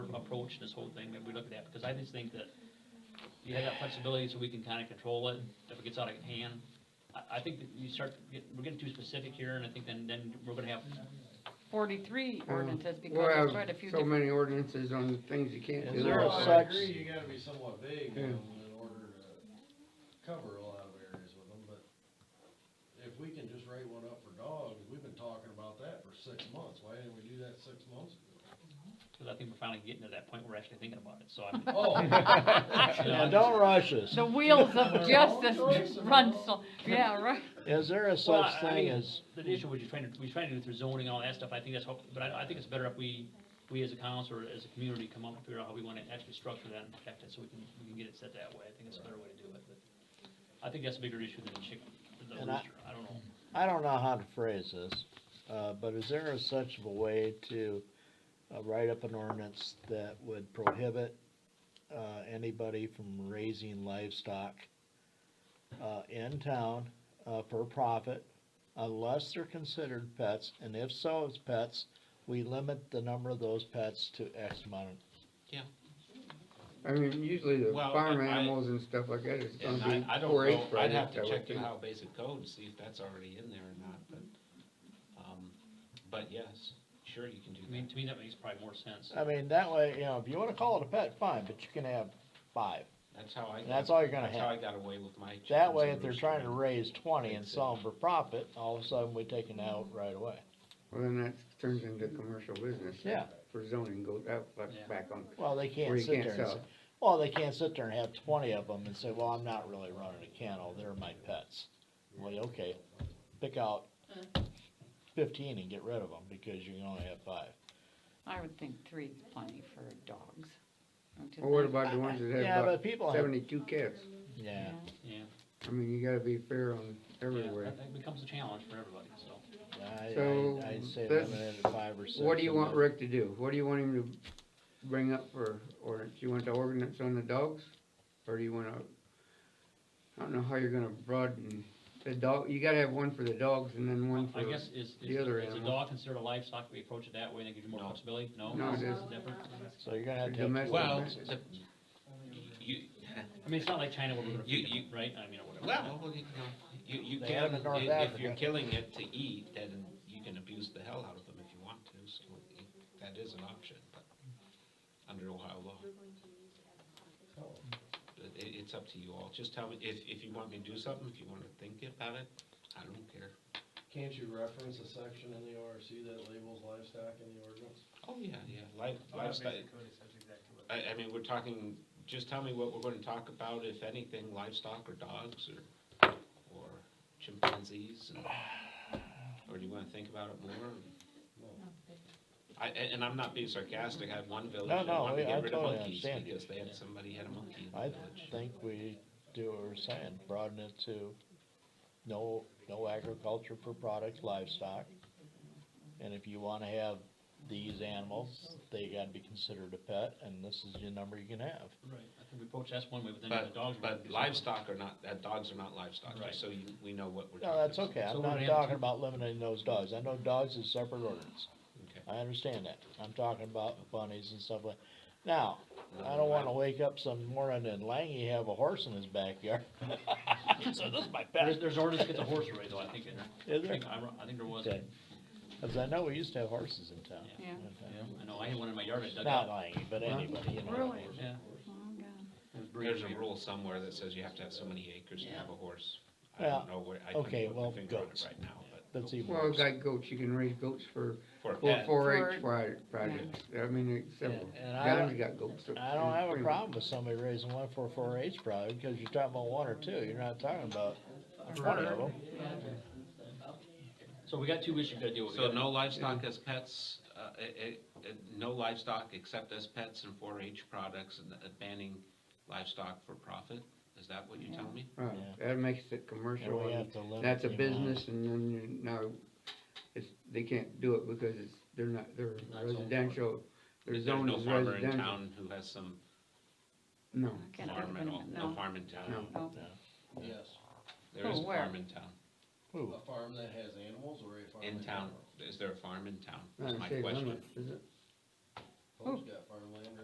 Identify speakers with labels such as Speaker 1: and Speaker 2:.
Speaker 1: approach this whole thing, maybe we look at that, because I just think that you have that flexibility so we can kind of control it, if it gets out of hand. I, I think that you start, to get- we're getting too specific here, and I think then, then we're gonna have,
Speaker 2: Forty-three
Speaker 3: Um,
Speaker 2: ordinances, because
Speaker 3: We'll have
Speaker 2: there's quite a few
Speaker 3: so
Speaker 2: different,
Speaker 3: many ordinances on things you can't do.
Speaker 4: Is there a
Speaker 3: Well, I
Speaker 5: I
Speaker 4: sec- such-
Speaker 5: agree, you gotta be somewhat vague
Speaker 3: Yeah.
Speaker 5: in order to cover a lot of areas with them, but if we can just write one up for dogs, we've been talking about that for six months, why didn't we do that six months ago?
Speaker 1: because I think we're finally getting to that point where we're actually thinking about it, so I'm.
Speaker 5: Oh,
Speaker 1: Yeah.
Speaker 4: Now, don't rush us.
Speaker 2: the wheels of justice
Speaker 5: choice of
Speaker 2: run
Speaker 5: all-
Speaker 2: so, yeah, right.
Speaker 4: Is there
Speaker 1: Well,
Speaker 4: a such
Speaker 1: I- I
Speaker 4: thing
Speaker 1: mean,
Speaker 4: as,
Speaker 1: The issue was you're trying to, we're trying to do through zoning and all that stuff, I think that's, how- but I, I think it's better if we, we as a council or as a community come up and figure out how we wanna actually structure that and protect it, so we can, we can get it set that way, I think it's a better way to do it, but I think that's a bigger issue than the chicken, the
Speaker 4: And I-
Speaker 1: rooster, I don't know.
Speaker 4: I don't know how to phrase this, uh, but is there a such of a way to uh, write up an ordinance that would prohibit, uh, anybody from raising livestock, uh, in town, uh, for profit, unless they're considered pets, and if so, as pets, we limit the number of those pets to X amount of
Speaker 3: I mean, usually the
Speaker 6: Well,
Speaker 3: farm
Speaker 6: I- I-
Speaker 3: animals and stuff like that is
Speaker 6: And
Speaker 3: gonna
Speaker 6: I,
Speaker 3: be
Speaker 6: I don't
Speaker 3: four H
Speaker 6: know,
Speaker 3: projects.
Speaker 6: I'd have to
Speaker 3: I would
Speaker 6: check the
Speaker 3: think.
Speaker 6: Ohio Basic Code to see if that's already in there or not, but, um, but yes, sure you can do
Speaker 1: I mean,
Speaker 6: that.
Speaker 1: to me, that makes probably more sense.
Speaker 3: Uh,
Speaker 4: I mean, that way, you know, if you wanna call it a pet, fine, but you can have five.
Speaker 6: That's how I.
Speaker 4: And that's
Speaker 6: got-
Speaker 4: all you're gonna
Speaker 6: That's how I
Speaker 4: have.
Speaker 6: got away with my.
Speaker 4: That
Speaker 6: chickens
Speaker 4: way,
Speaker 6: and
Speaker 4: if they're
Speaker 6: roosters.
Speaker 4: trying to raise twenty and
Speaker 6: Exactly.
Speaker 4: sell them for profit, all of a sudden we take it out right away.
Speaker 3: Well, then that turns into commercial business.
Speaker 4: Yeah.
Speaker 3: For zoning, go out,
Speaker 1: Yeah.
Speaker 3: like, back on,
Speaker 4: Well, they
Speaker 3: Or
Speaker 4: can't
Speaker 3: you
Speaker 4: sit
Speaker 3: can't
Speaker 4: there and say,
Speaker 3: sell.
Speaker 4: well, they can't sit there and have twenty of them and say, well, I'm not really running a kennel, they're my pets. Well, okay, pick out fifteen and get rid of them because you can only have five.
Speaker 2: I would think three is plenty for dogs. don't you
Speaker 3: Well, what
Speaker 2: think?
Speaker 3: about the ones that
Speaker 4: Yeah,
Speaker 3: have
Speaker 4: but
Speaker 3: about
Speaker 4: people have,
Speaker 3: seventy-two cats?
Speaker 4: yeah,
Speaker 1: Yeah,
Speaker 3: I mean, you gotta be fair on
Speaker 1: yeah,
Speaker 3: everywhere.
Speaker 1: that- that becomes a challenge for everybody, so.
Speaker 4: I,
Speaker 3: So,
Speaker 4: I, I'd say
Speaker 3: that's-
Speaker 4: limit it to five or six.
Speaker 3: What do you
Speaker 4: and
Speaker 3: want
Speaker 4: then-
Speaker 3: Rick to do? What do you want him to bring up for ordinance? You want the ordinance on the dogs? Or do you wanna, I don't know how you're gonna broaden the dog, you gotta have one for the dogs and then one for.
Speaker 1: I guess is,
Speaker 3: the
Speaker 1: is,
Speaker 3: other
Speaker 1: is a
Speaker 3: animal.
Speaker 1: dog considered a livestock, we approach it that way, and it gives you more
Speaker 6: No.
Speaker 1: flexibility, no?
Speaker 3: No, it
Speaker 1: It's
Speaker 3: isn't.
Speaker 1: different.
Speaker 4: So you're gonna have to. have
Speaker 3: Domestic.
Speaker 4: four.
Speaker 6: Well, the, you,
Speaker 1: I mean, it's not like China where we're gonna
Speaker 6: You-
Speaker 1: feed them,
Speaker 6: you-
Speaker 1: right, I mean, or whatever.
Speaker 6: well, well, you know, you, you
Speaker 4: They have
Speaker 6: can,
Speaker 4: it in North
Speaker 6: if, if you're
Speaker 4: Africa.
Speaker 6: killing it to eat, then you can abuse the hell out of them if you want to, so you- that is an option, but under Ohio law. But it, it's up to you all, just tell me, if, if you want me to do something, if you wanna think about it, I don't care.
Speaker 5: Can't you reference a section in the ORC that labels livestock in the ordinance?
Speaker 6: Oh, yeah, yeah, life, lifestyle. I, I mean, we're talking, just tell me what we're gonna talk about, if anything, livestock or dogs or, or chimpanzees and, or do you wanna think about it more? I, a- and, I'm not being sarcastic, I had one village
Speaker 4: No,
Speaker 6: that
Speaker 4: no,
Speaker 6: wanted to
Speaker 4: I- I
Speaker 6: get rid of
Speaker 4: totally
Speaker 6: monkeys
Speaker 4: understand.
Speaker 6: because they had, somebody had a monkey in the
Speaker 4: I
Speaker 6: village.
Speaker 4: think we do what we're saying, broaden it to no, no agriculture for product livestock. And if you wanna have these animals, they gotta be considered a pet, and this is your number you can have.
Speaker 1: Right, I think we approach that's one way, but then the
Speaker 6: But,
Speaker 1: dogs. are
Speaker 6: but
Speaker 1: gonna be
Speaker 6: livestock are not, that dogs are not livestock,
Speaker 1: Right.
Speaker 6: just so you, we know what we're talking
Speaker 4: No,
Speaker 6: about.
Speaker 4: that's okay,
Speaker 1: So
Speaker 4: I'm
Speaker 1: we're
Speaker 4: not
Speaker 1: gonna have
Speaker 4: talking
Speaker 1: two-
Speaker 4: about limiting those dogs, I know dogs is separate ordinance,
Speaker 6: Okay.
Speaker 4: I understand that, I'm talking about bunnies and stuff like. Now, I don't wanna wake up some morning and Langy have a horse in his backyard. So this is my
Speaker 1: something. There's,
Speaker 4: pet,
Speaker 1: there's ordinance to get the horse array though, I think, in-
Speaker 4: is
Speaker 1: I
Speaker 4: there?
Speaker 1: think, I, wrote- I think there was,
Speaker 4: Okay.
Speaker 1: yeah,
Speaker 4: Cause I know we used to have horses in town.
Speaker 2: Yeah.
Speaker 1: I know, I had one in my yard, I dug
Speaker 4: Not
Speaker 1: out.
Speaker 4: lying, but
Speaker 3: Huh?
Speaker 4: anybody, you know.
Speaker 2: Really?
Speaker 1: Yeah.
Speaker 2: Oh, God.
Speaker 1: it was breeding
Speaker 6: There's a
Speaker 1: here.
Speaker 6: rule somewhere that says you have to have so many acres to have a horse. I
Speaker 4: Yeah.
Speaker 6: don't know where, I couldn't
Speaker 4: Okay,
Speaker 6: put my
Speaker 4: well,
Speaker 6: finger on it
Speaker 4: goats.
Speaker 6: right now, but
Speaker 4: That's even
Speaker 3: Well,
Speaker 4: worse.
Speaker 3: got goats, you can raise goats for,
Speaker 6: for a
Speaker 3: for
Speaker 6: pet.
Speaker 3: four
Speaker 2: For-
Speaker 3: H projects, I mean, several.
Speaker 4: And- and I
Speaker 3: John's
Speaker 4: don't-
Speaker 3: got goats. so-
Speaker 4: I don't have a
Speaker 3: pretty much.
Speaker 4: problem with somebody raising one for four H probably, because you're talking about one or two, you're not talking about twenty of them.
Speaker 1: So we got two issues to deal with. We
Speaker 6: So
Speaker 1: got-
Speaker 6: no livestock as pets, uh, eh, eh, eh, no livestock except as pets and four H products and uh, banning livestock for profit? Is that what you're telling me?
Speaker 3: Right,
Speaker 4: Yeah.
Speaker 3: that makes it
Speaker 4: And
Speaker 3: commercial,
Speaker 4: we
Speaker 3: and
Speaker 4: have to limit
Speaker 3: that's a
Speaker 4: the amount.
Speaker 3: business, and then you, now, it's, they can't do it because it's, they're not, they're
Speaker 1: Not zoned for it.
Speaker 3: residential, their
Speaker 6: There's
Speaker 3: zone
Speaker 6: no
Speaker 3: is
Speaker 6: farmer in
Speaker 3: residential.
Speaker 6: town who has some
Speaker 3: No,
Speaker 2: I can't
Speaker 6: farm
Speaker 2: open
Speaker 6: at
Speaker 2: it,
Speaker 6: all, no
Speaker 2: no. Oh.
Speaker 6: farm in town.
Speaker 3: No.
Speaker 2: No.
Speaker 5: Yes,
Speaker 6: There is
Speaker 2: Oh,
Speaker 6: a
Speaker 2: where?
Speaker 6: farm in town,
Speaker 4: Ooh,
Speaker 5: a farm that has animals or a farm?
Speaker 6: in
Speaker 5: that-
Speaker 6: town. Is there a farm in town?
Speaker 3: not
Speaker 6: That's
Speaker 3: a
Speaker 6: my
Speaker 3: city
Speaker 6: question.
Speaker 3: limit, is it?
Speaker 5: Folks got farmland